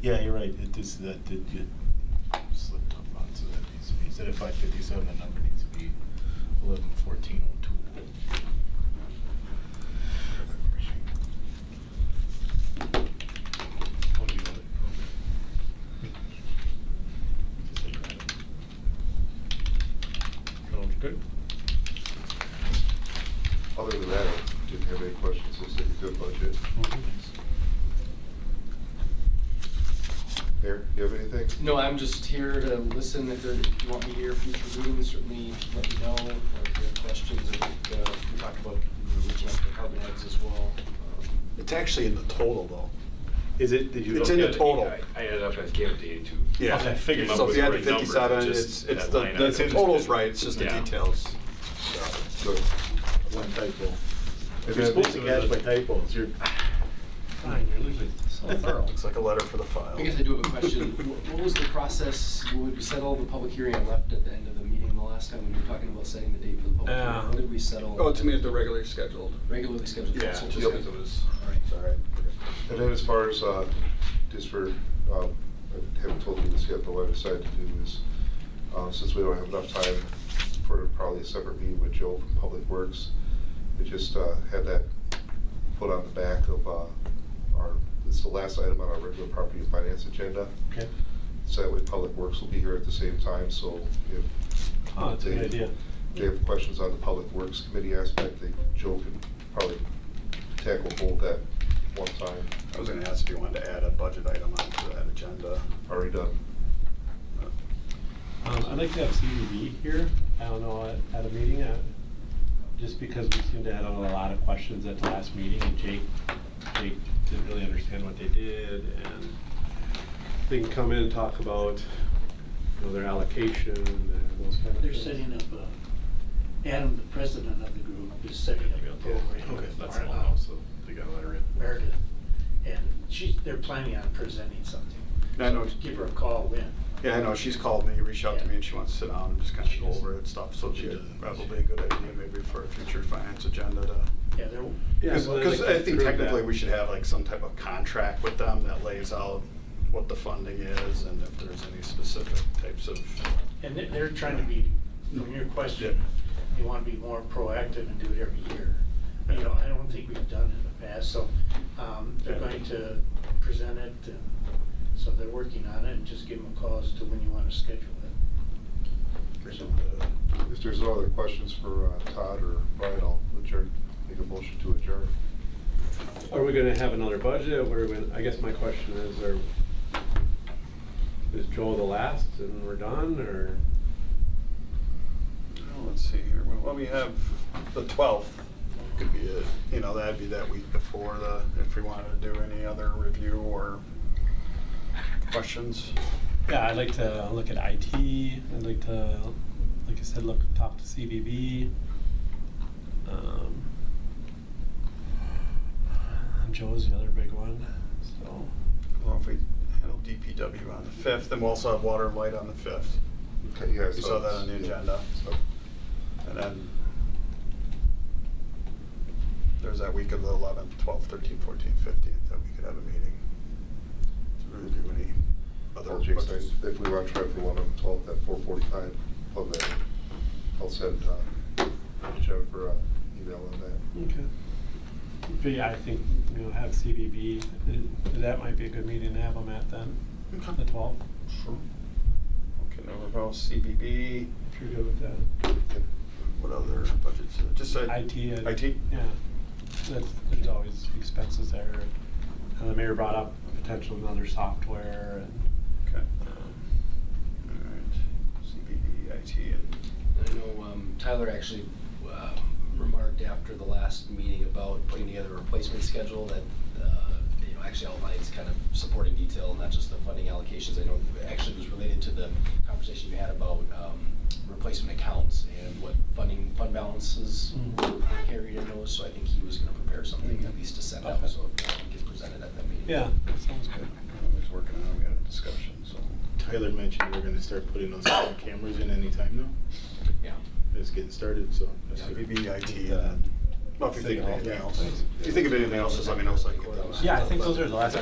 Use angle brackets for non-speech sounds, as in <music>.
Yeah, you're right, it is, that did get slipped up on, so that needs to be, instead of five fifty-seven, the number needs to be eleven fourteen oh two. What do you want? Just like that. Sounds good. Other than that, I didn't have any questions, let's take a good budget. Mayor, you have anything? No, I'm just here to listen. If there, if you want me here for future meetings, certainly let me know. Or if you have questions, I think, uh, we talked about reaching out to department heads as well. Um, It's actually in the total, though. Is it, did you? It's look in the at it? total. I I ended up, I gave it to eighty-two. Yeah. Okay, I figured So if you had the Right numbers, fifty-seven, just it's, it's that the, line the item. total's right, it's just the Yeah. details. So, One typo. and You're then- supposed to catch my typos, you're. Fine, you're usually so thorough. It's like a letter for the file. <laughs> I guess I do have a question. Wh- What was the process, when we settled the public hearing, I left at the end of the meeting the last time when you were talking about setting the date for the public Yeah. hearing. What did we settle? <laughs> Oh, to me, the regularly scheduled. Regularly scheduled Yeah, council. just because it was, All right. It's all right. And then as far as, uh, just for, um, I haven't told you this yet, but what I decided to do is, uh, since we don't have enough time for probably a separate meeting with Joe from Public Works, we just uh, had that put on the back of uh, our, it's the last item on our regular property and finance agenda. Okay. So that way Public Works will be here at the same time, so if Oh, that's a they- Good idea. they have questions on the Public Works Committee aspect, they, Joe can probably tackle both that one time, I was gonna ask if you wanted to add a budget item onto that agenda. already done. Um, I'd like to have CDB here, I don't know, at- at a meeting, uh, just because we seem to have a lot of questions at the last meeting, and Jake, Jake didn't really understand what they did, and they can come in and talk about, you know, their allocation and those kind of They're things. setting up, a- Adam, the president of the group, is setting up a program. Okay, that's tomorrow, all, so they got a letter in. Meredith, and she, they're planning on presenting something. And I know- So Give her a call then. Yeah, I know, she's called me, reached out to me, and she wants to sit down and just kind of go over it stuff, so she, probably a good idea maybe for a future finance agenda to Yeah, they're, Yeah, so I'd like Because to I think approve that. technically, we should have like some type of contract with them that lays out what the funding is and if there's any specific types of, and they're, they're trying to be, from your question, they want to be more proactive and do it every year. You know, I don't think we've done it in the past, so, um, they're going to present it, and so they're working on it, and just give them a call as to when you want to schedule it. So, If there's no other questions for uh, Todd or Brian, I'll adjourn, make a motion to adjourn. Are we gonna have another budget, What are we? I guess my question is, are, is Joel the last and we're done, or? Well, let's see here, well, we have the twelfth, could be it, you know, that'd be that week before the, if we wanted to do any other review or questions. Yeah, I'd like to look at IT, I'd like to, like I said, look, talk to CBB. Um, Joe's the other big one, so. Well, if we handle DPW on the fifth, then we'll also have water and light on the fifth, Okay, yeah, We saw that on the it's- agenda. so- and then there's that week of the eleventh, twelfth, thirteenth, fourteenth, fifteenth, that we could have a meeting. To really do any other Well, Jason, budgets. if we want to try for one on the twelfth at four forty-five, I'll then, I'll send uh, Jennifer an email on that. Okay. But yeah, I think, you know, have CBB, uh, that might be a good meeting to have them at then, the twelfth, Okay, now we're all CBB, if you're good with that. what other budgets, Uh, just uh, IT. and- IT? Yeah, that's, there's always expenses there. And the mayor brought up potential another software and, Okay, um, all right, CBB, IT, and I know um, Tyler actually um, remarked after the last meeting about putting together a replacement schedule that, uh, you know, actually outlines kind of supporting detail, not just the funding allocations. I know it actually was related to the conversation you had about um, replacement accounts and what funding, fund balances Mm. were carried in those. So I think he was going to prepare something at least to send out, Okay. so it can present it at that meeting. yeah, that sounds good. I was working on, it, we had a discussion, so. Tyler mentioned we're gonna start putting those <coughs> cameras in anytime now. Yeah. It's getting started, so. that's good. CBB, IT, and then, well, if you think of anything else, if you think of anything else, just let me know so I can get that. Yeah, I think those are the last